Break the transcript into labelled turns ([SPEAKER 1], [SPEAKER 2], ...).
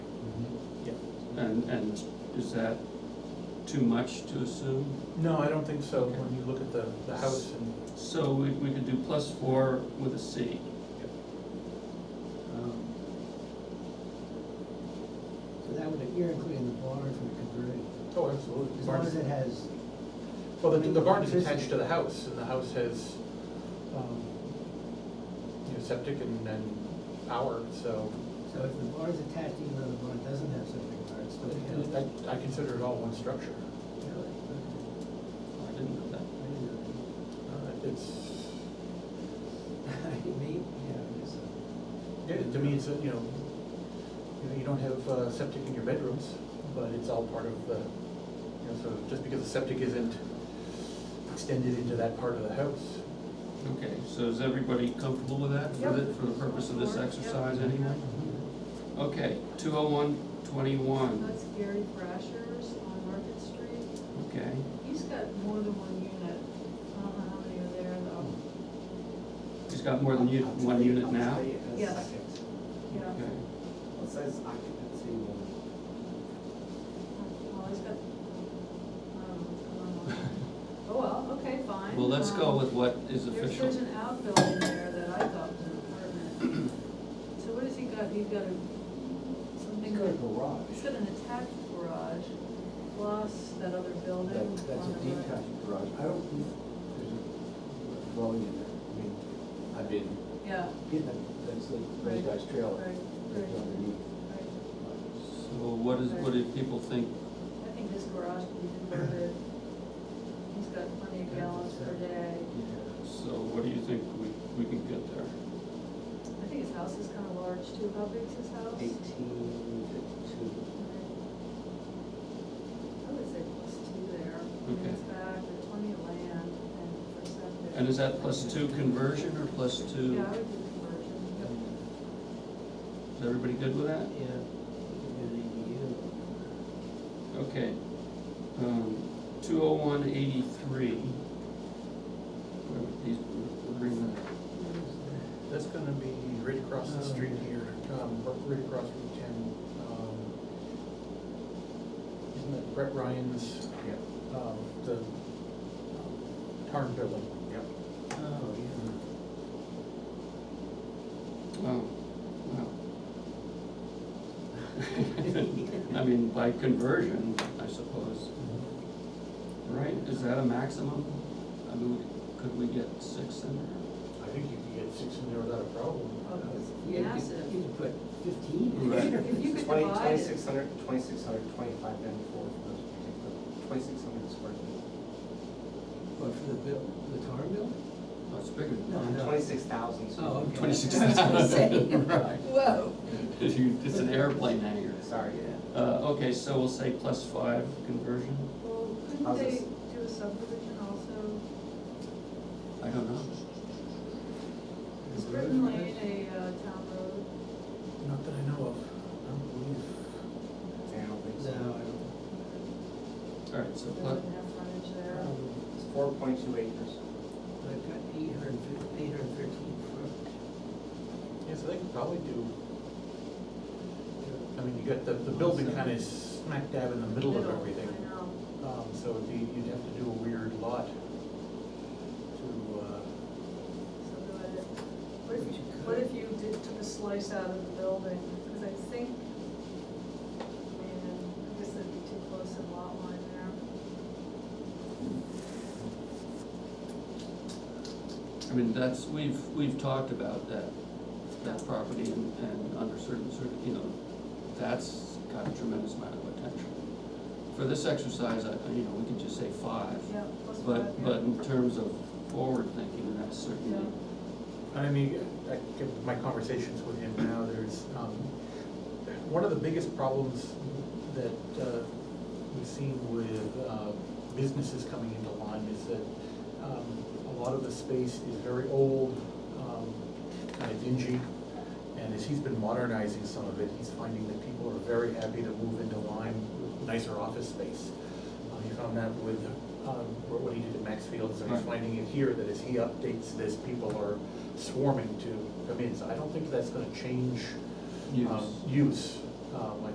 [SPEAKER 1] And, and is that too much to assume?
[SPEAKER 2] No, I don't think so, when you look at the, the house and,
[SPEAKER 1] So we, we could do plus four with a C.
[SPEAKER 2] Yep.
[SPEAKER 1] Um,
[SPEAKER 3] So that would, you're including the barn from the converted,
[SPEAKER 2] oh, absolutely.
[SPEAKER 3] as
[SPEAKER 2] Barn
[SPEAKER 3] long
[SPEAKER 2] is-
[SPEAKER 3] as it has,
[SPEAKER 2] Well, the, the barn is attached to the house, and the house has, um, you know, septic and, and power, so
[SPEAKER 3] so if the barn's attached, even though the barn doesn't have septic, or it's still.
[SPEAKER 2] I, I consider it all one structure.
[SPEAKER 3] Really? Okay.
[SPEAKER 1] Oh, I didn't know that.
[SPEAKER 3] I didn't know
[SPEAKER 2] Uh, It's,
[SPEAKER 3] that. Maybe, yeah, I guess so.
[SPEAKER 2] yeah, to me, it's, a, you know, you know, you don't have uh, septic in your bedrooms, but it's all part of the, you know, sort of, just because the septic isn't extended into that part of the house.
[SPEAKER 1] Okay, so is everybody comfortable with that for the, for the purpose of this
[SPEAKER 4] Yep.
[SPEAKER 1] exercise anyway? Okay, two oh one twenty-one,
[SPEAKER 4] That's Gary Brasher's on Market Street.
[SPEAKER 1] okay,
[SPEAKER 4] He's got more than one unit. I don't know how many are there though.
[SPEAKER 1] he's got more than u- one unit now?
[SPEAKER 4] Yes. Yeah,
[SPEAKER 1] Okay,
[SPEAKER 5] It says occupancy will,
[SPEAKER 4] well, he's got, um, I don't know. Oh, well, okay, fine.
[SPEAKER 1] well, let's go
[SPEAKER 4] Um,
[SPEAKER 1] with what is
[SPEAKER 4] There's,
[SPEAKER 1] official.
[SPEAKER 4] there's an outbuilding there that I thought was an apartment. So what has he got? He's got a, something.
[SPEAKER 5] it's got a
[SPEAKER 4] He's
[SPEAKER 5] garage,
[SPEAKER 4] got an attached garage plus that other building.
[SPEAKER 5] that, that's
[SPEAKER 4] on
[SPEAKER 5] a
[SPEAKER 4] the right.
[SPEAKER 5] detached garage, I don't think there's a dwelling in there, I mean, I've been,
[SPEAKER 4] Yeah,
[SPEAKER 5] yeah, that- that's the, those guys
[SPEAKER 4] right,
[SPEAKER 5] trailer,
[SPEAKER 4] right,
[SPEAKER 5] that's underneath.
[SPEAKER 4] right.
[SPEAKER 1] So what is, what do people think?
[SPEAKER 4] I think his garage can be converted. He's got plenty of gallons per day.
[SPEAKER 1] So what do you think we, we can get there?
[SPEAKER 4] I think his house is kind of large too. How big's his house?
[SPEAKER 5] Eighteen fifty-two,
[SPEAKER 4] I would say plus two there. And
[SPEAKER 1] Okay.
[SPEAKER 4] It's back, there's plenty of land and for septic.
[SPEAKER 1] And is that plus two conversion or plus two?
[SPEAKER 4] Yeah, I would do conversion. Yep.
[SPEAKER 1] Is everybody good with that?
[SPEAKER 3] Yeah, you could do an
[SPEAKER 1] Okay. Two oh one eighty-three. These, we're bringing that-
[SPEAKER 3] ADU.
[SPEAKER 2] That's gonna be right across the street here, um, r- right across Route ten. um, Isn't it Brett Ryan's,
[SPEAKER 5] yeah.
[SPEAKER 2] um, the um, Tarn building? Yep.
[SPEAKER 3] Oh, yeah.
[SPEAKER 1] oh, wow. I mean, by conversion, I suppose. Right, is that a maximum? I mean, could we get six in there?
[SPEAKER 2] I think you can get six in there without a problem.
[SPEAKER 4] Oh, that's
[SPEAKER 3] You could-
[SPEAKER 4] massive.
[SPEAKER 3] You could put fifteen. in
[SPEAKER 1] Right.
[SPEAKER 3] there.
[SPEAKER 4] If you could
[SPEAKER 5] Twenty,
[SPEAKER 4] divide it.
[SPEAKER 5] twenty-six hundred, twenty-six hundred, twenty-five ninety-four for those particular, twenty-six hundred square feet,
[SPEAKER 3] What, for the bill, the tar bill?
[SPEAKER 1] Oh, it's bigger than
[SPEAKER 3] No,
[SPEAKER 1] mine.
[SPEAKER 3] no.
[SPEAKER 5] twenty-six thousand.
[SPEAKER 3] Oh, okay.
[SPEAKER 1] Twenty-six
[SPEAKER 3] I was gonna say.
[SPEAKER 1] thousand, right.
[SPEAKER 3] Whoa.
[SPEAKER 1] If you- It's an airplane hangar.
[SPEAKER 5] Sorry, yeah.
[SPEAKER 1] Uh, okay, so we'll say plus five conversion?
[SPEAKER 4] Well, couldn't
[SPEAKER 5] How's
[SPEAKER 4] they
[SPEAKER 5] this?
[SPEAKER 4] do a subdivision also?
[SPEAKER 1] I don't know.
[SPEAKER 4] Is Britain Lane a uh, town road?
[SPEAKER 2] Not that I know of, I don't believe.
[SPEAKER 5] Yeah, I don't think
[SPEAKER 3] No,
[SPEAKER 5] so.
[SPEAKER 3] I don't.
[SPEAKER 1] All right, so plus,
[SPEAKER 4] Doesn't have frontage there.
[SPEAKER 3] Um,
[SPEAKER 5] It's four point two acres.
[SPEAKER 3] I've got eight hundred fifty, eight hundred thirteen front.
[SPEAKER 2] Yeah, so they could probably do, I mean, you got the, the building kinda is smack dab in the middle of everything.
[SPEAKER 4] I know.
[SPEAKER 2] Um, so it'd be, you'd have to do a weird lot to, uh,
[SPEAKER 4] So do it. What if you, what if you did, took a slice out of the building? Because I think, I mean, I guess that'd be too close to the lot line there.
[SPEAKER 1] I mean, that's, we've, we've talked about that, that property and, and under certain, certain, you know, that's got a tremendous amount of potential. For this exercise, I, you know, we can just say five,
[SPEAKER 4] Yeah, plus five.
[SPEAKER 1] but,
[SPEAKER 4] yeah.
[SPEAKER 1] but in terms of forward thinking, that's certainly,
[SPEAKER 2] I mean, I, give my conversations with him now, there's, um, one of the biggest problems that, uh, we've seen with, uh, businesses coming into Lyme is that, um, a lot of the space is very old, um, kind of dingy. And as he's been modernizing some of it, he's finding that people are very happy to move into Lyme, with nicer office space. Uh, He found that with, um, what what he did at Maxfield's, and he's
[SPEAKER 1] Right.
[SPEAKER 2] finding it here, that as he updates this, people are swarming to come in. So I don't think that's gonna change,
[SPEAKER 1] use.
[SPEAKER 2] um, use. Um, I